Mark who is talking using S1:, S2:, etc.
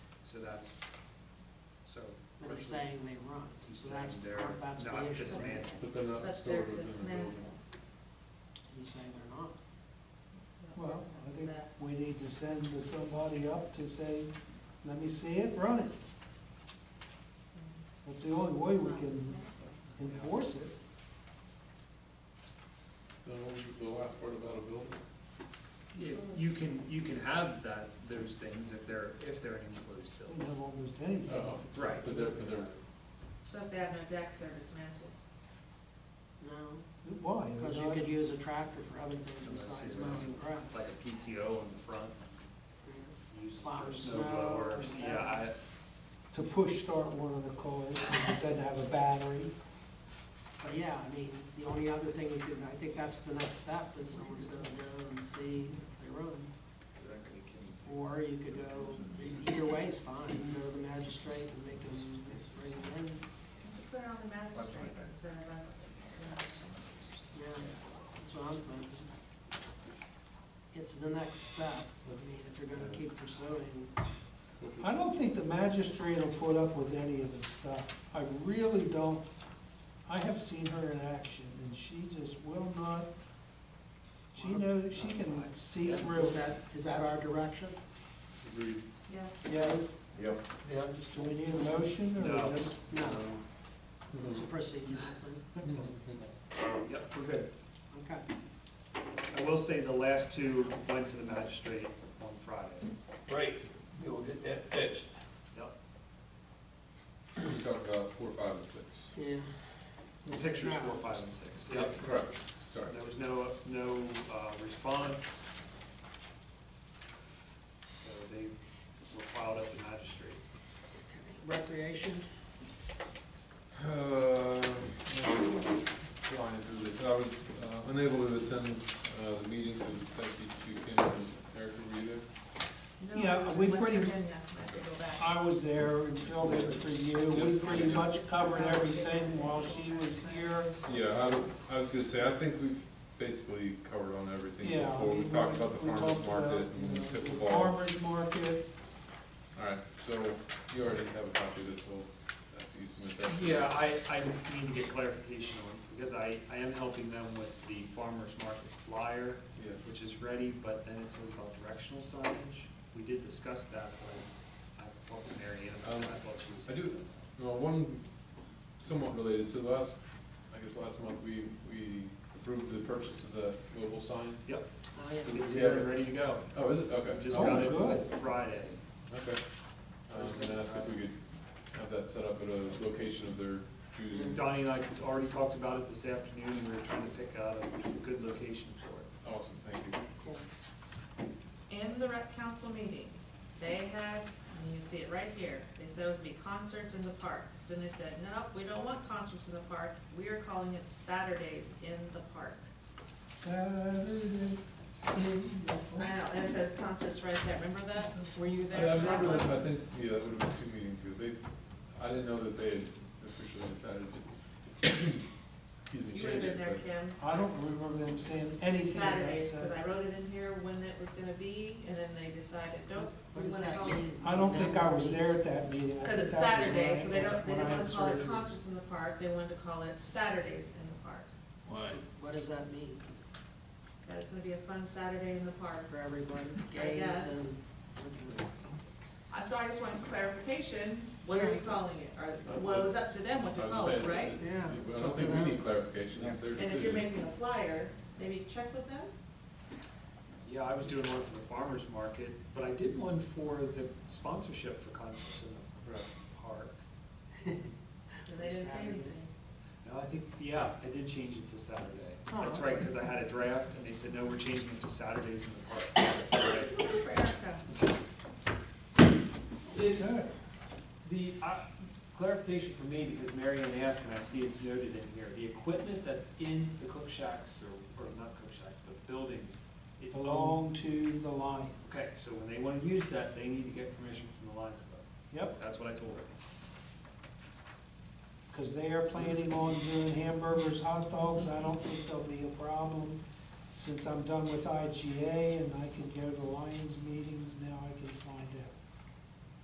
S1: So that's, so.
S2: But he's saying they run,
S1: He's
S2: so that's,
S1: saying
S2: the
S1: they're
S2: part- that's the
S1: not
S2: issue.
S1: dismantled.
S3: But they're not
S4: But
S3: stored
S4: they're
S3: within the building.
S4: dismantled.
S2: He's saying they're not.
S5: Well, I think we need to send somebody up to say, let me see it, run it. That's the only way we can enforce it.
S3: Now, what was the last part about a building?
S1: If, you can, you can have that, those things if they're, if they're an enclosed
S5: We
S1: building.
S5: can have almost anything.
S3: Oh,
S1: Right.
S3: But they're, but they're,
S4: So if they have no decks, they're dismantled.
S2: No,
S5: Why? They're
S2: because you
S5: not-
S2: could use a tractor for other things
S1: Unless
S2: besides
S1: it
S2: mowing
S1: was Like
S2: grass.
S1: a PTO on the front,
S2: Yeah.
S1: used
S2: Plow
S1: for
S2: snow
S1: snow blowers,
S2: or
S1: yeah, I,
S5: To push start one of the cars, because it doesn't have a battery.
S2: But yeah, I mean, the only other thing you could, I think that's the next step, is someone's gonna go and see if they run. Or you could go, either way is fine, go to the magistrate and make them bring it in,
S4: Put it on the magistrate instead of us.
S2: yeah, that's what I'm thinking. It's the next step, I mean, if you're gonna keep pursuing,
S5: I don't think the magistrate will put up with any of this stuff. I really don't. I have seen her in action, and she just will not, she knows, she can see through.
S2: is that, is that our direction?
S3: agreed.
S4: Yes.
S5: Yes,
S6: Yep.
S3: Yeah.
S5: do we need a motion, or
S1: No.
S5: just?
S2: No, it's a procedural thing,
S1: yep, we're good.
S2: okay.
S1: um, I will say the last two went to the magistrate on Friday.
S7: Right, we'll get that fixed.
S1: Yep.
S3: We talked about four, five, and six.
S2: Yeah.
S1: The Pictures four, five, and six.
S3: Correct, sorry.
S1: There was no, no uh, response. So they were filed at the magistrate.
S2: Recreation,
S3: Uh, Flying through this, I was uh, unable to attend uh, the meetings with Betsy Chukin and Erica Rita.
S4: No,
S5: Yeah, we
S4: West
S5: pretty-
S4: Virginia, I have to go back.
S5: I was there and filled in for you, we pretty much covered everything while she was here.
S3: Yeah, I, I was gonna say, I think we've basically covered on everything
S5: Yeah. I
S3: before, we
S5: mean,
S3: talked about the
S5: we
S3: farmer's
S5: talked about,
S3: market and
S5: you know, the
S3: pickleball.
S5: Farmer's market,
S3: Alright, so you already have a copy of this, so that's you submit that.
S1: Yeah, I, I need to get clarification on, it, because I, I am helping them with the farmer's market flyer,
S3: Yeah.
S1: which is ready, but then it says about directional signage. We did discuss that, but I talked to Mary Ann about that, I thought she was.
S3: I do, well, one somewhat related, so last, I guess last month, we, we approved the purchase of the mobile sign.
S1: Yep,
S2: oh yeah.
S1: it's here and ready to go.
S3: Oh, is it? Okay.
S1: We Just
S5: Oh,
S1: got it
S5: good.
S1: Friday.
S3: Okay. Um, and ask if we could have that set up at a location of their choosing.
S1: Donnie and I already talked about it this afternoon, we were trying to pick out a good location for it.
S3: Awesome, thank you.
S4: In the rec council meeting, they had, and you see it right here, they said it was gonna be concerts in the park. Then they said, no, we don't want concerts in the park, we are calling it Saturdays in the park.
S5: Saturday in the
S4: I know, and it says concerts right there, remember that? Were you there?
S3: Yeah, I
S4: for that
S3: remember
S4: one?
S3: that, I think, yeah, that would have been two meetings ago. They, I didn't know that they had officially decided to. excuse me,
S4: You would have
S3: change
S4: been
S3: it,
S4: there,
S3: but-
S4: Kim.
S5: I don't remember them saying anything about
S4: Saturdays, because
S5: Saturday.
S4: I wrote it in here when it was gonna be, and then they decided, nope.
S2: What does that mean?
S5: I don't think I was there at that meeting. I
S4: Because it's
S5: think that was
S4: Saturday,
S5: when I-
S4: so they don't, they
S5: when I
S4: didn't want to call it
S5: inserted it.
S4: concerts in the park, they wanted to call it Saturdays in the park.
S7: Why?
S2: What does that mean
S4: That it's gonna be a fun Saturday in the park.
S2: for everybody?
S4: I guess.
S2: Games and.
S4: Uh, So I just want clarification, what are we calling it? Or, well, it's up to them what to
S3: I was
S4: call
S3: gonna
S4: it,
S3: say,
S4: right?
S3: it's-
S2: Yeah,
S3: But I
S2: it's up
S3: don't
S2: to
S3: think we
S2: them.
S3: need clarification, it's their
S4: And if you're
S3: decision.
S4: making a flyer, maybe check with them?
S1: Yeah, I was doing one for the farmer's market, but I did one for the sponsorship for concerts in
S3: Right.
S1: the park.
S4: And they didn't say anything.
S1: No, I think, yeah, I did change it to Saturday.
S2: Oh,
S1: That's right,
S2: okay.
S1: because I had a draft and they said, no, we're changing it to Saturdays in the park. Right.
S4: For Erica.
S5: Good.
S1: The, uh, clarification for me, because Mary Ann asked, and I see it's noted in here, the equipment that's in the cook shacks, or, or not cook shacks, but buildings, is
S2: Oh.
S1: owned.
S5: Belong to the Lions.
S1: Okay, so when they wanna use that, they need to get permission from the Lions Club.
S5: Yep,
S1: That's what I told her.
S5: because they are planning on doing hamburgers, hot dogs. I don't think there'll be a problem. Since I'm done with IGA and I can go to Lions meetings, now I can find